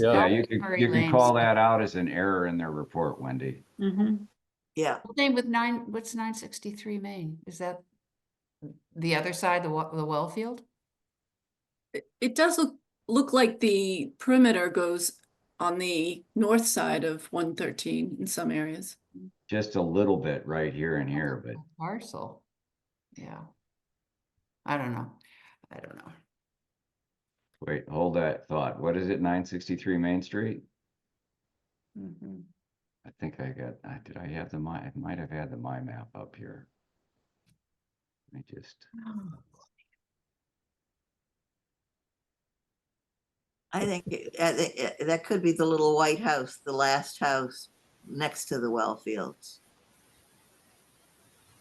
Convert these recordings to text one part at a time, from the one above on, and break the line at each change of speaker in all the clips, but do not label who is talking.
Yeah.
Yeah,
That
you
was
can,
very
you can
lame.
call that out as an error in their report, Wendy.
Mhm.
Yeah,
Well, Same with nine, what's nine sixty-three Main? Is that the other side, the wa- the well field?
It- It does look, look like the perimeter goes on the north side of one thirteen in some areas.
Just a little bit right here and here, but
A Parcel. Yeah. I don't know. I don't know.
wait, hold that thought. What is it? Nine sixty-three Main Street?
Mm-hmm.
Mhm.
I think I got, I, did I have the my, I might have had the my map up here. I just,
I think it- uh, it- it- that could be the little white house, the last house next to the well fields.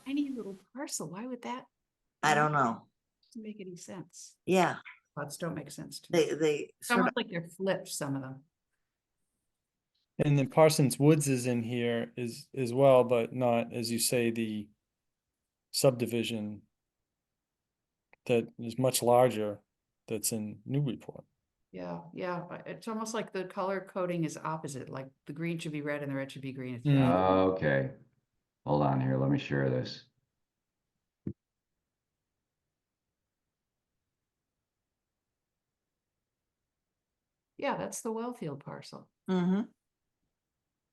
Any little parcel, why would that Mm.
I don't know.
doesn't make any sense?
Yeah,
Lots don't make sense to me.
they, they
It's
sort of,
almost like they're flipped, some of them.
And then Parsons Woods is in here is as well, but not, as you say, the subdivision that is much larger that's in Newburyport.
Yeah, yeah, but it's almost like the color coding is opposite, like the green should be red and the red should be green. It's
Mm.
not.
okay. Hold on here, let me share this.
Yeah, that's the well field parcel.
Mhm.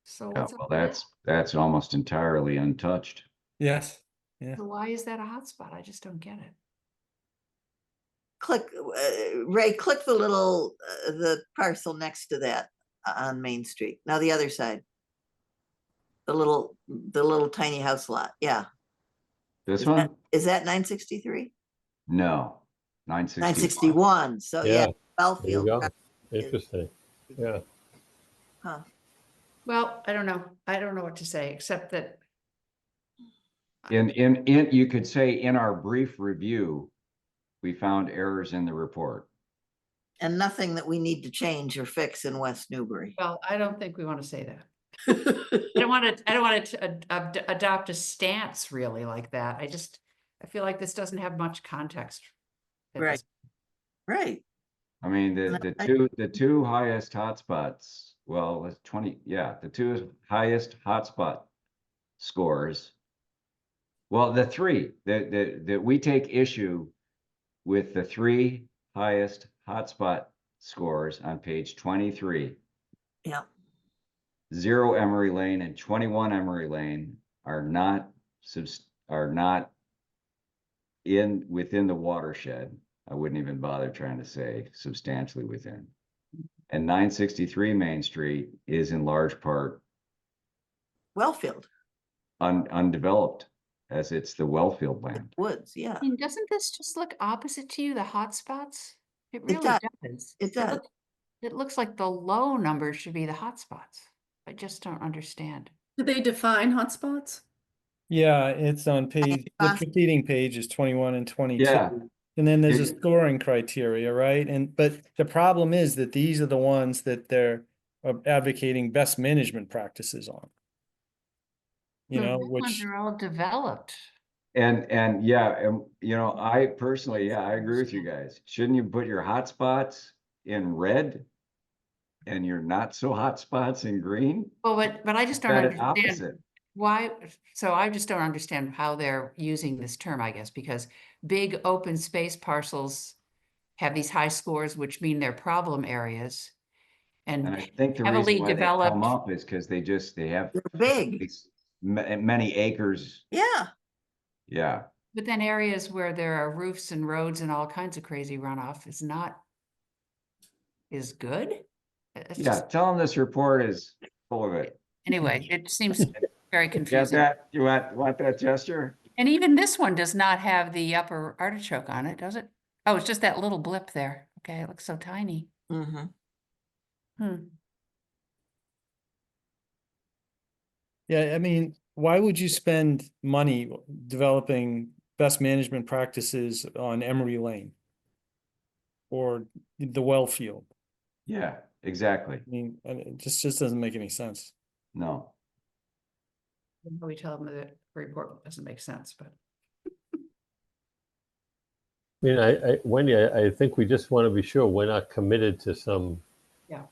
So
Yeah,
what's up
Oh, well,
with that?
that's, that's almost entirely untouched.
Yes. Yeah.
So Why is that a hotspot? I just don't get it.
click, uh, Ray, click the little, uh, the parcel next to that o- on Main Street. Now the other side. The little, the little tiny house lot. Yeah.
This
Is that-
one?
Is that nine sixty-three?
No, nine sixty.
Nine sixty-one. So yeah,
Yeah,
well
there you
field.
go.
right, is-
Interesting. Yeah,
huh.
Well, I don't know. I don't know what to say, except that
In, in, in, you could say in our brief review, we found errors in the report.
And nothing that we need to change or fix in West Newbury.
Well, I don't think we want to say that. I don't want to, I don't want to adopt a stance really like that. I just, I feel like this doesn't have much context. at
Right.
this-
Right.
I mean, the, the
I-
two, the two highest hotspots, well, it's twenty, yeah, the two highest hotspot scores. Well, the three, that, that, that we take issue with the three highest hotspot scores on page twenty-three.
Yeah.
zero Emery Lane and twenty-one Emery Lane are not subs, are not in, within the watershed. I wouldn't even bother trying to say substantially within. And nine sixty-three Main Street is in large part
Well field,
un, undeveloped as it's the wellfield land.
woods. Yeah,
I mean, doesn't this just look opposite to you, the hotspots? It really
does.
does.
it does.
look- It looks like the low numbers should be the hotspots. I just don't understand.
Do they define hotspots?
Yeah, it's on page, the
uh,
preceding page is twenty-one and
Yeah.
twenty-two. And then there's a
It-
scoring criteria, right? And, but the problem is that these are the ones that they're uh, advocating best management practices on. You
The
know,
red ones
which,
Are all developed.
And, and yeah, and you know, I personally, yeah, I agree with you guys. Shouldn't you put your hotspots in red? And your not so hotspots in green?
Well, but, but I just don't
Got it
understand
opposite.
Why, so I just don't understand how they're using this term, I guess, because big open space parcels have these high scores, which mean they're problem areas.
And
And
I think the
heavily
reason why they come
developed-
up is because they just, they have
They're big.
these ma- many acres,
Yeah.
yeah.
but then areas where there are roofs and roads and all kinds of crazy runoff is not is good. It's
Yeah,
just,
tell them this report is full of it.
anyway, it seems very
Got
confusing.
that? You want, want that gesture?
And even this one does not have the upper artichoke on it, does it? Oh, it's just that little blip there. Okay, it looks so tiny.
Mm-hmm.
Hmm.
yeah, I mean, why would you spend money developing best management practices on Emery Lane? Or the well field?
Yeah, exactly.
I mean, I- it just, just doesn't make any sense.
No.
Then We tell them that the report doesn't make sense, but
I mean, I, I, Wendy, I, I think we just want to be sure we're not committed to some
Yeah.